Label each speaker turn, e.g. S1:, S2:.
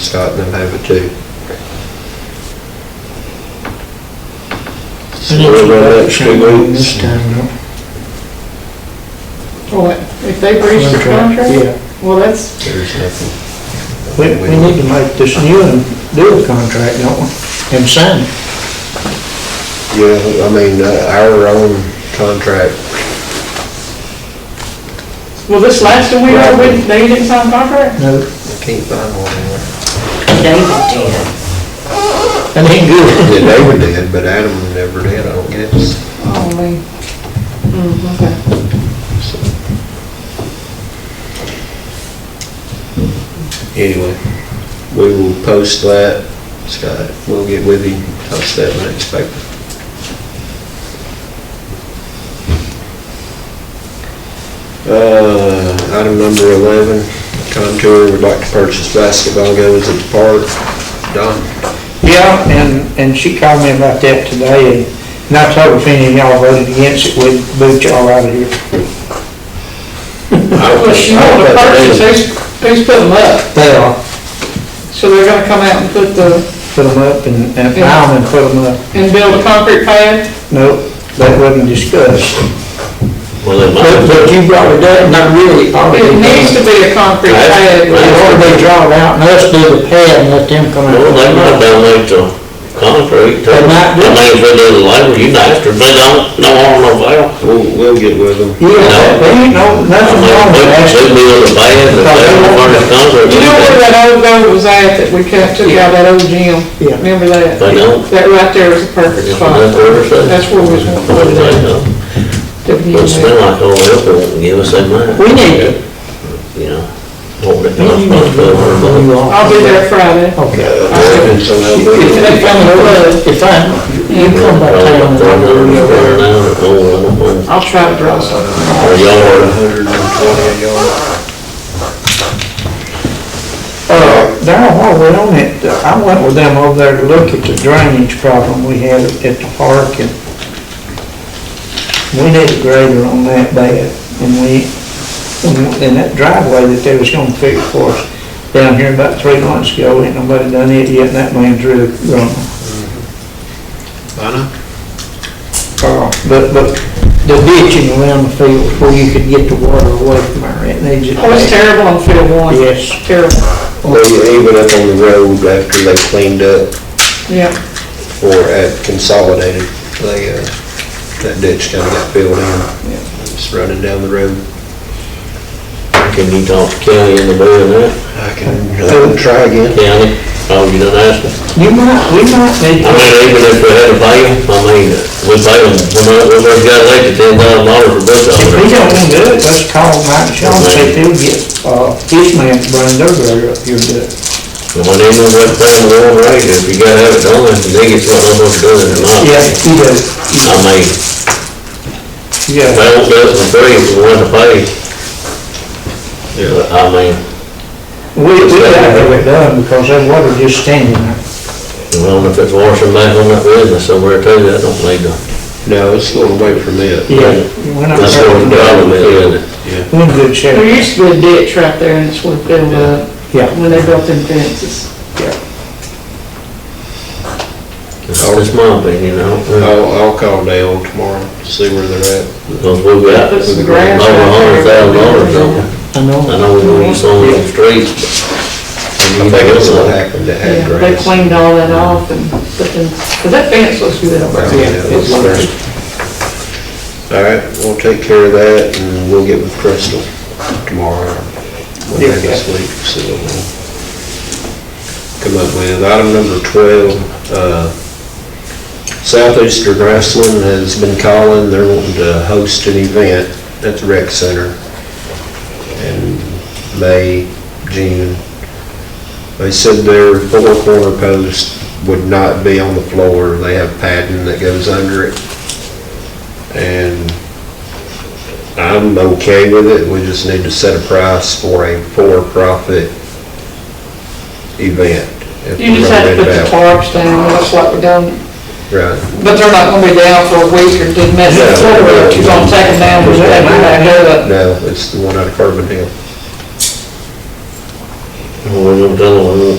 S1: Scott and them have it too.
S2: Well, if they breached the contract,
S3: Yeah,
S2: well, that's,
S1: There's nothing.
S3: we, we need to make this new and do a contract, don't we? And sign it.
S1: Yeah, I mean, uh, our own contract,
S2: well, this last one we had, we- they didn't sign a contract?
S3: No,
S1: I can't find one anywhere.
S4: David did.
S3: that ain't good.
S1: Yeah, David did, but Adam never did, I don't guess.
S2: Oh, man. Mm, okay.
S1: so. Anyway, we will post that, Scott, we'll get with him, post that in the next paper. Uh, item number eleven, Contour would like to purchase basketball goals at the park. Don?
S3: Yeah, and, and she called me about that today, and and I told her if any of y'all voted against it, we'd boot y'all out of here.
S2: Well, she wanted to purchase, who's, who's putting them up?
S3: They are,
S2: So they're gonna come out and put the,
S3: put them up and, and pile them and put them up.
S2: and build a concrete pad?
S3: Nope, that wasn't discussed.
S5: Well, they
S3: But,
S5: might,
S3: but you brought it up, not really, already.
S2: It needs to be a concrete pad.
S3: They already draw it out, and us do the pad and let them come out.
S5: well, they might download the concrete.
S3: They might do.
S5: I mean, if they do the labor, you master, but don't, no harm, no foul.
S1: We'll, we'll get with them.
S3: Yeah, there ain't no,
S5: I
S3: nothing
S5: mean,
S3: wrong with
S5: they
S3: that.
S5: should be on the band, if they don't want to concrete,
S2: You know where
S5: they
S2: that old goat was at that we kept, took out that old gym?
S3: Yeah.
S2: Remember that?
S5: don't.
S2: That right there was a perfect
S5: They
S2: spot.
S5: don't have to ever say.
S2: That's where we was gonna put
S5: What do they
S2: it.
S5: know?
S2: Didn't
S5: But
S2: even
S5: it smell like old apple, won't give us that much.
S3: We need it.
S5: You know, what it costs, but twelve hundred bucks.
S2: I'll be there Friday.
S3: Okay.
S1: And so they'll do it.
S3: If they come over, if I, you come by town and over,
S5: Probably
S3: you
S5: about $400
S3: know,
S5: an hour, oh,
S2: I'll try to draw something.
S5: oh, oh,
S1: Or
S5: Or yard.
S1: 120 a yard.
S3: uh, there, while we're on it, uh, I went with them over there to look at the drainage problem we had at the park, and we need a grader on that bad, and we, and- and that driveway that they was gonna fix for us down here about three months ago, ain't nobody done it yet, and that man's really grown.
S1: I know.
S3: Uh, But, but the ditching around the field where you could get the water away from our, it needs it.
S2: Oh, it's terrible on field one.
S3: Yes.
S2: Terrible,
S1: They even up on the road after they cleaned up
S2: yeah.
S1: or had consolidated, they, uh, that ditch kinda got filled in. It's running down the road.
S5: Can you talk to Kelly into doing that?
S1: I can, I can try again.
S5: Kelly, oh, you done asked him?
S3: You might, we might need,
S5: I mean, even if we had to pay them, I mean, we pay them, we might, we might got like the ten thousand dollars for books
S3: if
S5: over
S3: we
S5: there.
S3: don't wanna do it, let's call Mike Shaw and see if he'll get, uh, his man to bring their uh, grader up here to do it.
S5: And when they move that thing going right, if you gotta have it done, if they get what I'm gonna do it or not.
S3: Yeah, he does,
S5: I mean, if
S3: yeah.
S5: they don't do it for free, if we want to pay. Yeah, I mean,
S3: We, we gotta have it done because that water just standing there.
S5: well, if it's washing back on that business somewhere too, that don't need to.
S1: No, it's going away from it.
S3: We're not,
S5: That's what the problem is, isn't it?
S3: we're in good
S2: There
S3: shape,
S2: used to be a ditch right there and it's what filled up
S3: yeah.
S2: when they built them fences.
S5: That's just my opinion, I don't think.
S1: I'll, I'll call Dale tomorrow, see where they're at.
S5: Because we've got
S2: That's the
S5: over a
S2: grass
S5: hundred
S2: right there.
S5: thousand dollars on it.
S3: I know.
S5: I know we don't use on the streets, but.
S1: I think that's what happened to
S2: Yeah,
S1: Ad
S2: they
S1: Grace.
S2: cleaned all that off and, but then, but that fence looks good over there.
S1: All right, we'll take care of that and we'll get with Crystal tomorrow, Monday this week, so we'll come up with. Item number twelve, uh, Southeastern Wrestling has been calling, they're wanting to host an event at the rec center in May, June. They said their four corner post would not be on the floor, they have padding that goes under it. And I'm okay with it, we just need to set a price for a for-profit event. if
S2: You
S1: we're
S2: just
S1: gonna
S2: had to
S1: bid
S2: put
S1: it
S2: the
S1: out.
S2: tarps down, that's what we done,
S1: Right.
S2: but they're not gonna be down for a week or did mess it
S1: No.
S2: forward, you're gonna take them down, we're gonna back up.
S1: No, it's the one out of Carbon Hill.
S5: Well, we don't tell them, we